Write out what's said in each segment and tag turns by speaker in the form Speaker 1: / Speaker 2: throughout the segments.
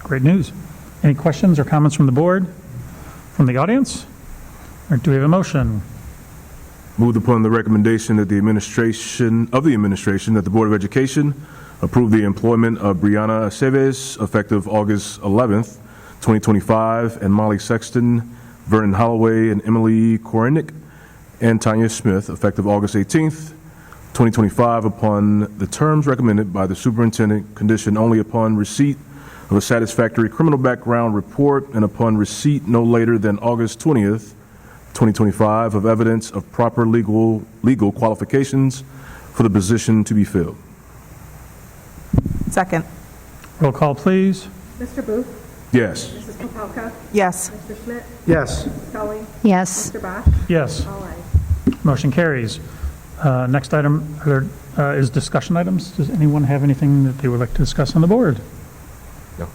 Speaker 1: Great news. Any questions or comments from the board, from the audience? Or do we have a motion?
Speaker 2: Moved upon the recommendation that the administration, of the administration, that the Board of Education approve the employment of Brianna Aceves effective August 11th, 2025, and Molly Sexton, Vernon Holloway, and Emily Korinick, and Tanya Smith effective August 18th, 2025, upon the terms recommended by the superintendent, conditioned only upon receipt of a satisfactory criminal background report and upon receipt no later than August 20th, 2025 of evidence of proper legal, legal qualifications for the position to be filled.
Speaker 3: Second.
Speaker 1: Roll call, please.
Speaker 4: Mr. Booth?
Speaker 2: Yes.
Speaker 4: Mrs. Popelka?
Speaker 3: Yes.
Speaker 4: Mr. Schmidt?
Speaker 5: yes,
Speaker 4: Mrs. Scully?
Speaker 6: yes,
Speaker 4: Mr. Bosch?
Speaker 1: Yes,
Speaker 4: All ayes.
Speaker 1: motion carries. Uh, Next item are there, uh, is discussion items. Does anyone have anything that they would like to discuss on the board?
Speaker 2: No.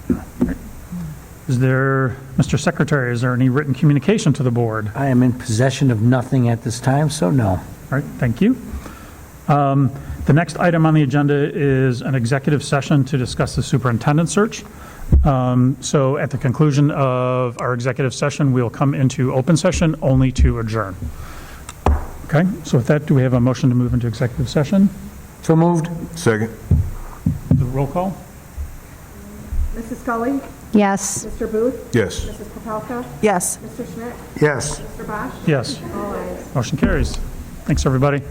Speaker 1: Is there, Mr. Secretary, is there any written communication to the board?
Speaker 5: I am in possession of nothing at this time, so no.
Speaker 1: All right, thank you. Um, The next item on the agenda is an executive session to discuss the superintendent search. Um, So at the conclusion of our executive session, we'll come into open session only to adjourn. Okay, so with that, do we have a motion to move into executive session?
Speaker 5: So moved?
Speaker 2: Second.
Speaker 1: The Roll call?
Speaker 4: Mrs. Scully?
Speaker 6: yes.
Speaker 4: Mr. Booth?
Speaker 2: Yes.
Speaker 4: Mrs. Popelka?
Speaker 3: Yes.
Speaker 4: Mr. Schmidt?
Speaker 5: Yes.
Speaker 4: Mr. Bosch?
Speaker 1: Yes,
Speaker 4: All ayes.
Speaker 1: motion carries. Thanks, everybody.